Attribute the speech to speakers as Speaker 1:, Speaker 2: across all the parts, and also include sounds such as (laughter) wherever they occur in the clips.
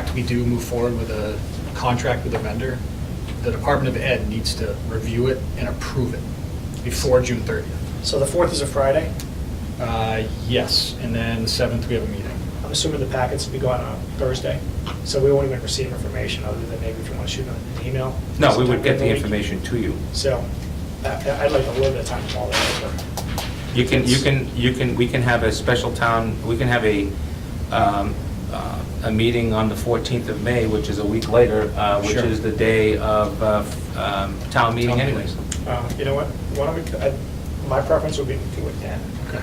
Speaker 1: fact, we do move forward with a contract with a vendor, the Department of Ed needs to review it and approve it before June 30th.
Speaker 2: So the 4th is a Friday.
Speaker 1: Uh, Yes, and then the 7th, we have a meeting.
Speaker 2: I'm assuming the packets will be gone on Thursday, so we won't even receive information other than maybe if you want to shoot an email.
Speaker 3: No, we would
Speaker 2: sometime
Speaker 3: get the
Speaker 2: in week.
Speaker 3: information to you.
Speaker 2: So I- I'd like a little bit of time to mull that over.
Speaker 3: You can, you can, you can, we can have a special town, we can have a, um, uh, a meeting on the 14th of May, which is a week later, uh, which
Speaker 1: Sure.
Speaker 3: is the day of uh, um, town meeting
Speaker 1: Town meeting.
Speaker 3: anyways.
Speaker 2: Uh, You know what, why don't we, I- my preference would be to do it then.
Speaker 1: Okay.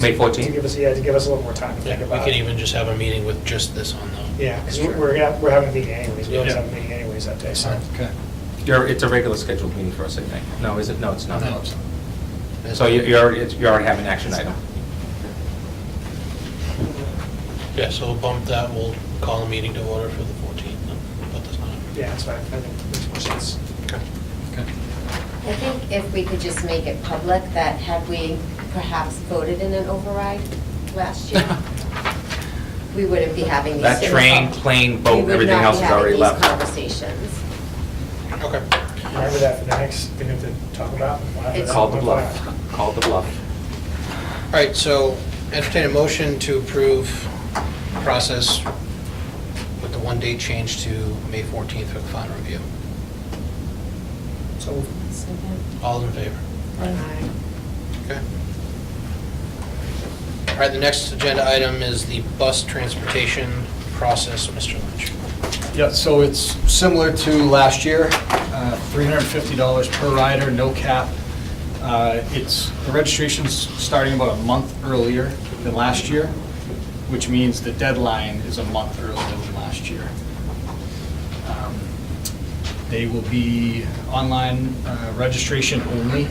Speaker 3: May
Speaker 2: To give
Speaker 3: 14th?
Speaker 2: us, yeah, to give us a little more time to
Speaker 4: Yeah,
Speaker 2: think
Speaker 4: we
Speaker 2: about it.
Speaker 4: could even just have a meeting with just this on though.
Speaker 2: Yeah, because we're, gonna- we're having a meeting anyways, we always
Speaker 1: Yeah.
Speaker 2: have a meeting anyways that day, so.
Speaker 1: Okay.
Speaker 3: You're- It's a regular scheduled meeting for us, I think. No, is it? No, it's not.
Speaker 4: No.
Speaker 3: So you you already, it's- you already have an action item.
Speaker 4: Yeah, so we'll bump that, we'll call a meeting to order for the 14th, and put this on.
Speaker 2: Yeah, that's fine, I think makes more sense.
Speaker 1: Okay.
Speaker 5: I think if we could just make it public that had we perhaps voted in an override last year,
Speaker 3: (laughs)
Speaker 5: we wouldn't be having these.
Speaker 3: That
Speaker 5: same
Speaker 3: train,
Speaker 5: con-
Speaker 3: plane, boat,
Speaker 5: we would
Speaker 3: everything
Speaker 5: not be
Speaker 3: else is
Speaker 5: having
Speaker 3: already
Speaker 5: these
Speaker 3: left.
Speaker 5: conversations.
Speaker 4: Okay.
Speaker 2: Remember that for the next thing to talk about? We'll have
Speaker 5: It's-
Speaker 2: that
Speaker 3: Called the
Speaker 2: one
Speaker 3: bluff.
Speaker 2: file.
Speaker 3: Called the bluff.
Speaker 4: All right, so entertain a motion to approve process with the one date change to May 14th for the final review.
Speaker 2: So
Speaker 4: All in favor?
Speaker 5: Aye.
Speaker 4: Okay. All right, the next agenda item is the bus transportation process, Mr. Lynch.
Speaker 1: Yeah, so it's similar to last year, uh, $350 per rider, no cap. Uh, It's, the registration's starting about a month earlier than last year, which means the deadline is a month earlier than last year. Um, They will be online uh, registration only.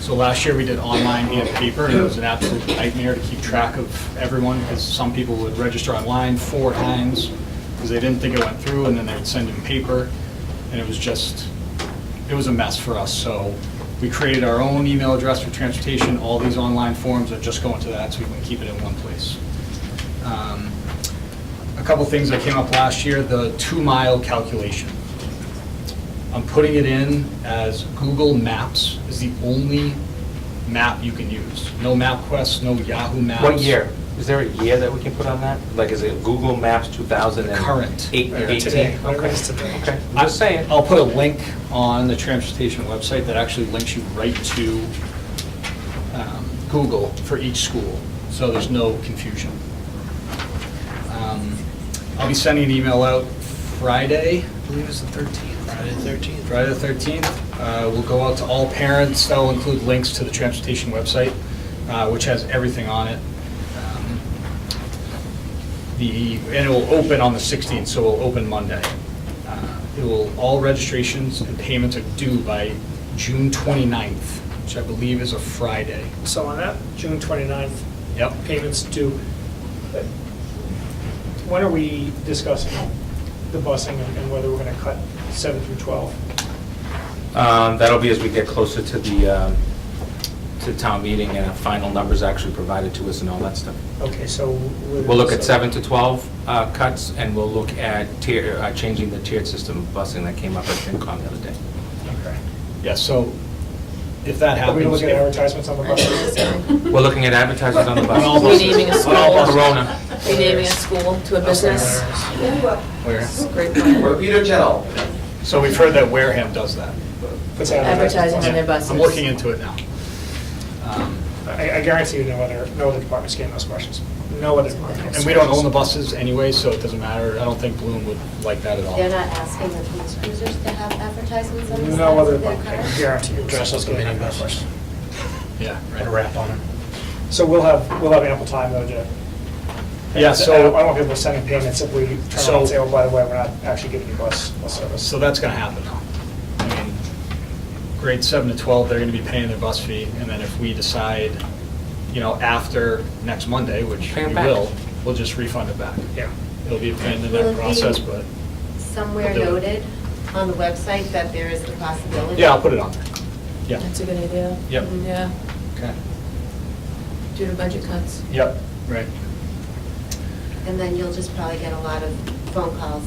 Speaker 1: So last year, we did online and paper, and it was an absolute nightmare to keep track of everyone, because some people would register online four times, because they didn't think it went through, and then they would send in paper, and it was just, it was a mess for us. So we created our own email address for transportation, all these online forms are just going to that, so we can keep it in one place. Um, A couple things that came up last year, the two-mile calculation. I'm putting it in as Google Maps is the only map you can use. No MapQuest, no Yahoo Maps.
Speaker 3: What year? Is there a year that we can put on that? Like, is it Google Maps 2000 and...
Speaker 1: Current.
Speaker 3: eight-
Speaker 2: Uh,
Speaker 3: 18?
Speaker 2: today. Whatever it
Speaker 3: Okay,
Speaker 2: is today.
Speaker 3: okay. I'm just saying.
Speaker 1: I'll put a link on the transportation website that actually links you right to um, Google for each school, so there's no confusion. Um, I'll be sending an email out Friday, I believe it's the 13th.
Speaker 4: Friday the 13th.
Speaker 1: Friday the 13th. Uh, We'll go out to all parents. That'll include links to the transportation website, uh, which has everything on it. Um, The, and it will open on the 16th, so it'll open Monday. Uh, It will, all registrations and payments are due by June 29th, which I believe is a Friday.
Speaker 2: So on that, June 29th,
Speaker 1: Yep.
Speaker 2: payments due. uh, When are we discussing the busing and and whether we're going to cut 7 through 12?
Speaker 3: Um, That'll be as we get closer to the, um, to town meeting and our final numbers actually provided to us and all that stuff.
Speaker 2: Okay, so.
Speaker 3: We'll look at 7 to 12 uh, cuts, and we'll look at tier, uh, changing the tiered system of busing that came up at FinCom the other day.
Speaker 2: Okay.
Speaker 1: Yeah, so if that
Speaker 2: Are
Speaker 1: happens.
Speaker 2: we going to look at
Speaker 1: if-
Speaker 2: advertisements on the buses?
Speaker 6: (laughs)
Speaker 3: We're looking at advertisements on the
Speaker 1: On all
Speaker 3: buses.
Speaker 1: buses.
Speaker 6: Renaming a
Speaker 1: On
Speaker 6: school.
Speaker 1: all buses.
Speaker 3: Corona.
Speaker 6: renaming a school to a business.
Speaker 1: Where?
Speaker 6: Great plan.
Speaker 7: Peter Chell.
Speaker 1: So we've heard that Wareham does that.
Speaker 2: Puts
Speaker 6: Advertising on
Speaker 2: advertisements.
Speaker 6: their buses.
Speaker 1: I'm looking into it now. Um,
Speaker 2: I I guarantee you no other, no other department's getting those questions. No other department.
Speaker 1: And we don't own the buses anyway, so it doesn't matter. I don't think Bloom would like that at all.
Speaker 5: They're not asking the police cruisers to have advertisements on the
Speaker 2: No
Speaker 5: sides
Speaker 2: other
Speaker 5: of their
Speaker 2: department, I can
Speaker 5: cars?
Speaker 2: guarantee you.
Speaker 4: Dress like a
Speaker 2: Getting
Speaker 4: mini
Speaker 2: that
Speaker 4: bus.
Speaker 2: question.
Speaker 1: Yeah,
Speaker 4: Put a
Speaker 1: right.
Speaker 4: wrap on it.
Speaker 2: So we'll have, we'll have ample time though to.
Speaker 1: Yeah,
Speaker 2: I don't
Speaker 1: so-
Speaker 2: I don't want people sending payments if we turn around
Speaker 1: So-
Speaker 2: and say, oh, by the way, we're not actually giving you bus, bus service.
Speaker 1: So that's gonna happen now. I mean, grade seven to twelve, they're gonna be paying their bus fee, and then if we decide, you know, after next Monday, which
Speaker 3: Pay it
Speaker 1: we
Speaker 3: back.
Speaker 1: will, we'll just refund it back.
Speaker 2: Yeah.
Speaker 1: It'll be a pain in
Speaker 5: Will it
Speaker 1: the
Speaker 5: be-
Speaker 1: neck process, but,
Speaker 5: Somewhere
Speaker 1: They'll-
Speaker 5: noted on the website that there is the possibility.
Speaker 1: yeah, I'll put it on there. Yeah,
Speaker 6: That's a good idea. Mm,
Speaker 1: Yep.
Speaker 6: Yeah,
Speaker 1: okay.
Speaker 6: due to budget cuts.
Speaker 1: Yep, right.
Speaker 5: And then you'll just probably get a lot of phone calls